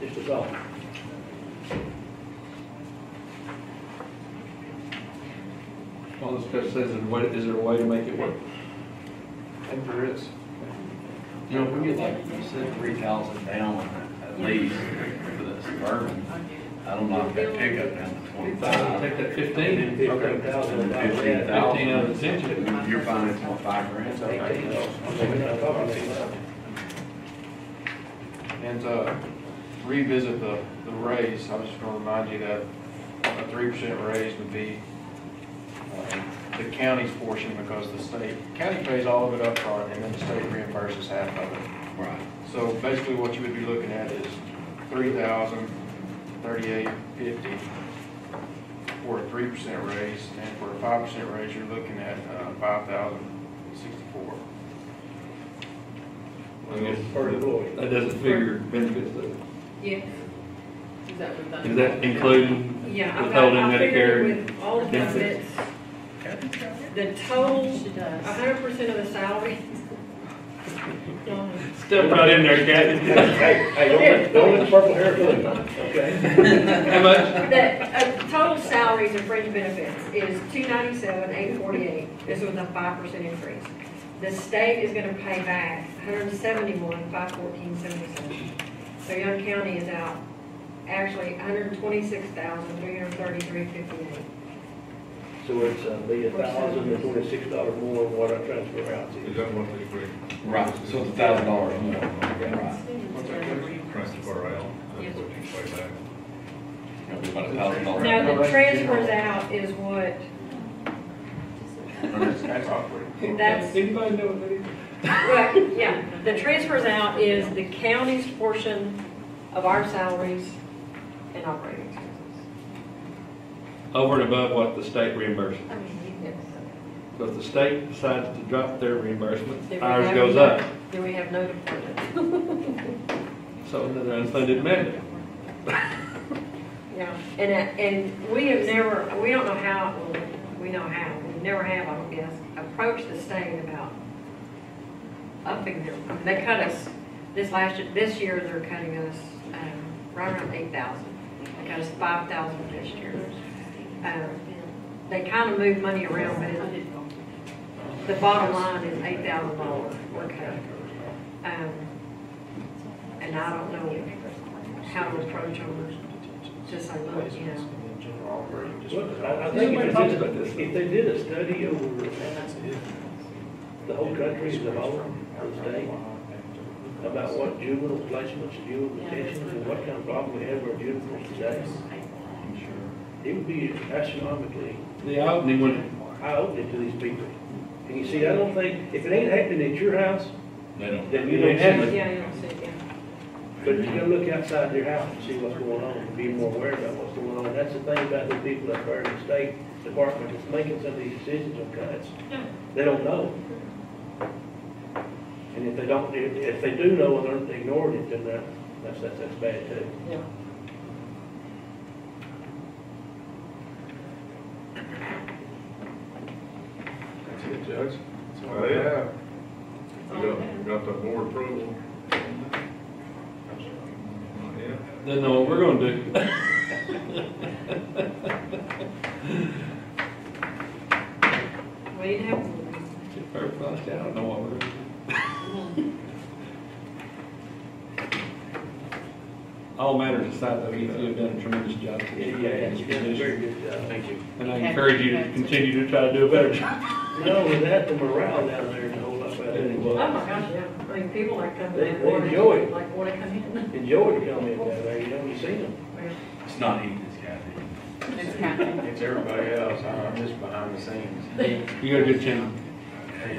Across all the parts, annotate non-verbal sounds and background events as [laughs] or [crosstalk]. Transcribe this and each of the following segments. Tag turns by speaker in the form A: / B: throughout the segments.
A: This is all.
B: All those special things, is there a way, is there a way to make it work?
A: I think there is.
C: You know, if we get like, you said three thousand down at least for the suburban, I don't know if that pickup down to
B: I'll
C: twenty-five.
B: take that fifteen,
A: Fifteen thousand.
C: Fifteen
B: fifteen out of the ten.
C: If You're financing on five grand, so
A: Eighteen.
D: And to revisit the, the raise, I was just gonna remind you that a three percent raise would be um, the county's portion because the state, county pays all of it upfront and then the state reimburses half of it.
C: Right.
D: So basically what you would be looking at is three thousand thirty-eight fifty for a three percent raise. And for a five percent raise, you're looking at uh, five thousand sixty-four.
A: Per employee.
B: That doesn't figure benefits though.
E: Yes. Is that what that-
B: Is that including
E: Yeah, I've got,
B: withholding
E: I figured
B: Medicare?
E: with all of
B: benefits?
E: benefits, the total, hundred percent of the salary.
B: Step right in there, Kathy.
A: Hey, hey, don't let, don't let the purple hair fool you, okay?
B: How much?
E: The, uh, total salaries and fringe benefits is two ninety-seven, eight forty-eight, this was a five percent increase. The state is gonna pay back hundred and seventy-one, five fourteen, seventy-seven. So Young County is out actually hundred and twenty-six thousand, three hundred and thirty-three, fifty-eight.
A: So it's, uh, be a thousand and twenty-six dollars more than what I transfer out to.
F: Is that what they bring?
C: Right, so it's a thousand dollars more. Right.
F: Transfer out, that's what you pay back.
C: It'll be about a thousand dollars.
E: No, the transfers out is what,
D: That's operating.
E: that's,
B: Anybody know what that is?
E: right, yeah. The transfers out is the county's portion of our salaries and operating expenses.
B: Over and above what the state reimburses.
E: I mean, yes.
B: So if the state decides to drop their reimbursement,
E: Then we
B: ours
E: have-
B: goes up.
E: Then we have no department.
B: So another unfunded mandate.
E: Yeah, and, uh, and we have never, we don't know how, well, we know how, we never have, I don't guess, approached the state about upping their, I mean, they cut us, this last, year- this year, they're cutting us, um, right around eight thousand. They cut us five thousand this year. Um, They kind of move money around, but it- the bottom line is eight thousand dollars, we're cutting. Um, And I don't know how to approach them, just like, look, you know,
A: Well, I, I
B: Nobody
A: think if
B: talks
A: they
B: about this,
A: did,
B: though.
A: if they did a study over the whole country as a whole, for the state, about what juvenile placements, juvenile detentions, and what kind of problem we have with juveniles today, it would be astronomically
B: The opening one,
A: eye-opening to these people. And you see, I don't think, if it ain't happening at your house,
C: They don't.
A: then you don't have it.
E: yeah, you don't see it, yeah.
A: But you gotta look outside your house and see what's going on, and be more aware about what's going on. That's the thing about the people up there in the state department that's making some of these decisions on cuts. They don't know. And if they don't, if, if they do know and they're ignoring it, then that, that's, that's, that's bad too.
E: Yeah.
F: That's it, Judge. That's all I have. You got, you got the board approval? Yeah.
B: then know what we're gonna do.
E: We didn't have.
B: Get her flushed out, I don't know what we're.
D: [laughs]
B: All matters aside, though, you have done a tremendous job.
A: You did a very good job. Thank you.
B: And I encourage you to continue to try to do a better job.
A: No, with that, the morale down there is a whole lot better.
E: Oh my gosh, yeah. I mean, people like come
A: They-
E: in,
A: they enjoy it.
E: like wanna come in. [laughs]
A: Enjoy the comment down there, you know, you see them.
C: It's not eating, it's Kathy.
D: It's everybody else, I- I'm just behind the
G: [laughs]
D: scenes.
B: You got a good channel.
D: I do.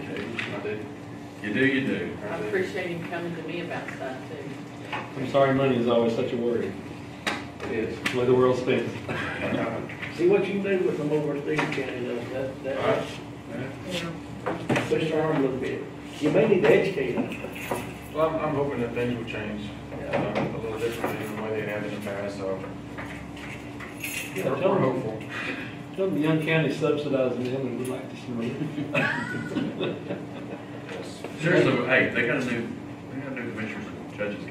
C: You do, you do.
G: I appreciate him coming to me about stuff too.
B: I'm sorry, money is always such a worry,
D: It is.
B: the way the world spins.
A: See what you can do with them over at Stevens County, though, that, that, push their arm a little bit. You may need to educate them.
D: Well, I'm, I'm hoping that things will change, um, a little differently than the way they have in the past, so.
B: Yeah,
D: We're
B: tell
D: we're
B: 'em.
D: hopeful.
B: Tell them Young County subsidizing them and we'd like to see money.
C: Seriously, hey, they got a new, they got a new commissioners and judges